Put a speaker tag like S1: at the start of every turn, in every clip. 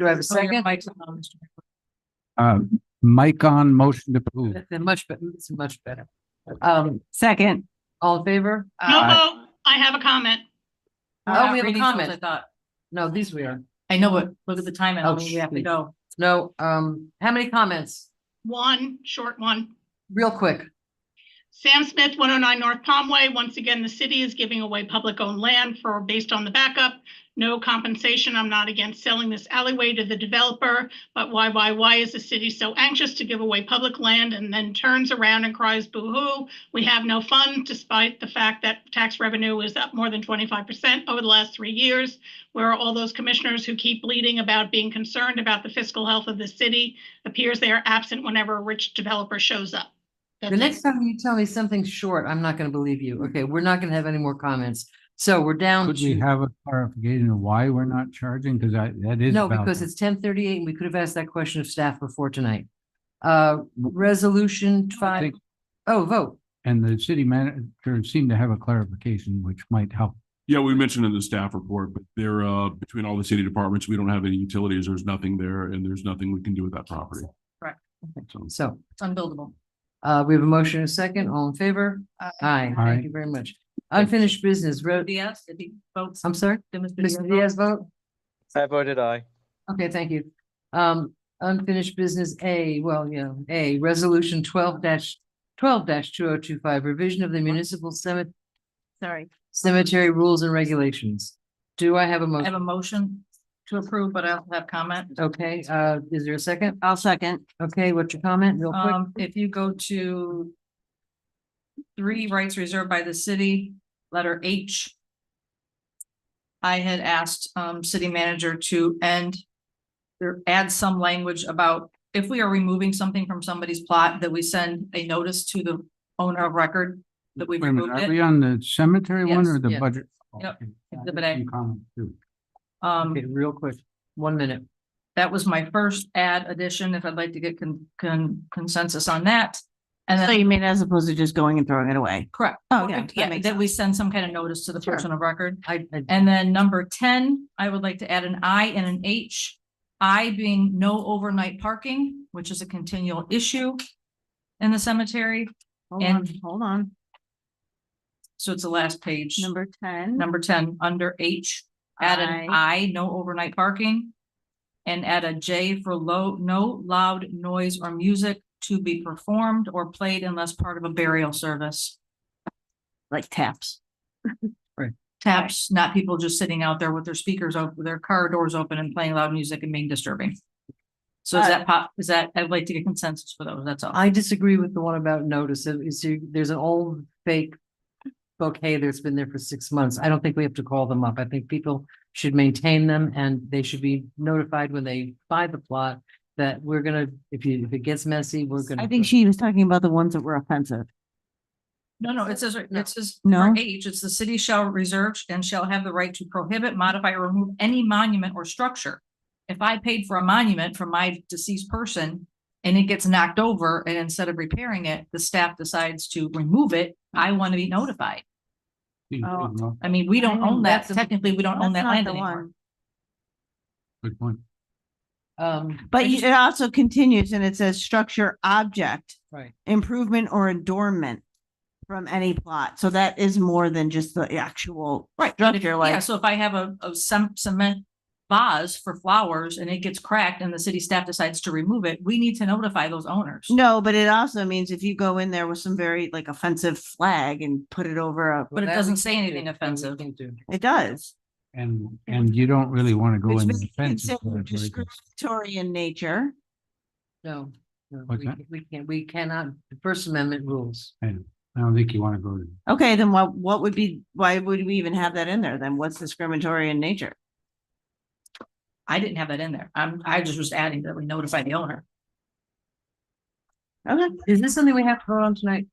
S1: Do I have a
S2: Oh,
S1: second?
S3: Mike's on, Mr.
S4: Um, mic on, motion to approve.
S3: McClure. That's Much, bet- it's much better. Um, second, all in favor?
S5: No
S2: Oh,
S4: Aye.
S5: vote. I have a comment.
S3: Oh, we have a comment. No, these we are.
S2: I know, but look at the time and
S3: Oh,
S2: how many we have to
S3: shoot.
S2: go.
S3: No, um, how many comments?
S5: One, short one.
S3: Real quick.
S5: Sam Smith, 109 North Palmway. Once again, the city is giving away public-owned land for, based on the backup. No compensation. I'm not against selling this alleyway to the developer, but why, why, why is the city so anxious to give away public land and then turns around and cries boo-hoo? We have no fun despite the fact that tax revenue is up more than 25% over the last three years. Where are all those commissioners who keep bleeding about being concerned about the fiscal health of the city? Appears they are absent whenever a rich developer shows up.
S3: The next time you tell me something short, I'm not gonna believe you. Okay, we're not gonna have any more comments. So we're down
S4: Could we
S3: to,
S4: have a clarification of why we're not charging? Because I, that is.
S3: no,
S4: about
S3: because
S4: that.
S3: it's ten thirty-eight and we could have asked that question of staff before tonight. Uh, resolution
S4: I
S3: five,
S4: think-
S3: oh, vote.
S4: And the city manager seemed to have a clarification, which might help.
S6: Yeah, we mentioned in the staff report, but there, uh, between all the city departments, we don't have any utilities. There's nothing there and there's nothing we can do with that property.
S2: Correct.
S6: So.
S3: So,
S2: It's unbuildable. Uh,
S3: uh, we have a motion and a second, all in favor?
S2: Aye.
S3: Aye,
S4: Aye.
S3: thank you very much. Unfinished business, road,
S2: Diaz, did he vote?
S3: I'm sorry,
S2: Did Mr. Diaz
S3: Mr.
S2: vote?
S3: Um, Diaz vote?
S7: I voted aye.
S3: Okay, thank you. Um, unfinished business A, well, yeah, A, resolution twelve twelve two oh two five, revision of the municipal cemetery.
S2: Sorry,
S3: cemetery rules and regulations. Do I have a
S2: I have
S3: motion?
S2: a motion to approve, but I also have comment.
S3: Okay, uh, is there a second?
S1: I'll second.
S3: Okay, what's your comment real quick?
S2: Um, if you go to three rights reserved by the city, letter H. I had asked, um, city manager to end or add some language about if we are removing something from somebody's plot, that we send a notice to the owner of record that we've
S4: Wait a minute,
S2: removed
S4: are
S2: it.
S4: we on the cemetery one
S2: Yes,
S4: or the
S3: yes.
S4: budget?
S2: Yep,
S4: Okay.
S2: exhibit A.
S4: Some comments too.
S2: Um,
S3: Okay, real quick, one minute.
S2: that was my first add addition, if I'd like to get con- con- consensus on that. And
S1: So
S2: then,
S1: you mean as opposed to just going and throwing it away?
S2: correct.
S1: Oh, yeah, that
S2: Yeah,
S1: makes
S2: that we send some kind of notice to the
S3: Sure.
S2: person of record.
S3: I, I,
S2: And then number ten, I would like to add an I and an H. I being no overnight parking, which is a continual issue in the cemetery.
S1: Hold
S2: And-
S1: on, hold on.
S2: So it's the last page,
S1: Number ten.
S2: number ten, under H, add an I, no overnight parking. And add a J for low, no loud noise or music to be performed or played unless part of a burial service.
S1: Like taps.
S2: Taps, not people just sitting out there with their speakers open, with their car doors open and playing loud music and being disturbing. So is that pop, is that, I'd like to get consensus for those, that's all.
S3: I disagree with the one about notice. It- it's- you- there's an old fake bouquet that's been there for six months. I don't think we have to call them up. I think people should maintain them and they should be notified when they buy the plot that we're gonna, if you, if it gets messy, we're gonna.
S1: I think she was talking about the ones that were offensive.
S2: No, no, it says, right-
S3: No.
S2: it says.
S1: No?
S2: for H, it's the city shall reserve and shall have the right to prohibit, modify, or remove any monument or structure. If I paid for a monument from my deceased person and it gets knocked over and instead of repairing it, the staff decides to remove it, I want to be notified.
S4: Seems
S1: Oh,
S4: good, no?
S2: I mean, we don't
S1: I know,
S2: own that.
S1: that's a-
S2: Technically, we don't own that
S1: That's not
S2: land
S1: the
S2: anymore.
S1: one.
S4: Good point.
S3: Um,
S1: But
S2: I
S1: you-
S2: just-
S1: it also continues and it says structure, object,
S3: right.
S1: improvement or adornment from any plot. So that is more than just the actual
S2: Right. but if-
S1: structure,
S2: Yeah,
S1: like,
S2: so if I have a, a cem- cement vase for flowers and it gets cracked and the city staff decides to remove it, we need to notify those owners.
S1: no, but it also means if you go in there with some very like offensive flag and put it over a,
S2: But
S3: Well,
S2: it
S3: that
S2: doesn't
S3: we
S2: say
S3: can't do.
S2: anything
S3: That we
S2: offensive.
S3: can't do.
S1: it does.
S4: And, and you don't really want to go
S1: It's
S4: in
S1: really
S4: the fence.
S1: considered Discriminatory in nature.
S3: No, no,
S4: What's
S3: we
S4: that?
S3: can't- we can't, we cannot, the First Amendment rules.
S4: I don't think you want to go to.
S1: Okay, then what, what would be, why would we even have that in there then? What's discriminatory in nature?
S2: I didn't have that in there. I'm, I just was adding that we notify the owner.
S1: Okay.
S3: Is this something we have to vote on tonight?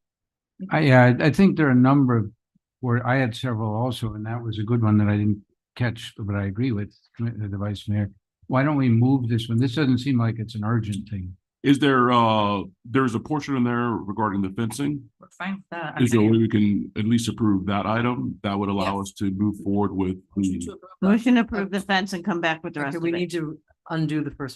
S4: I, yeah, I I think there are a number of, where I had several also, and that was a good one that I didn't catch, but I agree with uh, the vice mayor. Why don't we move this one? This doesn't seem like it's an urgent thing.
S6: Is there, uh, there's a portion in there regarding the fencing?
S2: We're fine with that.
S6: Is there a way we can at least approve that item? That would allow us to move forward with the.
S1: Motion to approve the fence and come back with the rest
S3: Okay,
S1: of
S3: we
S1: it.
S3: need to undo the first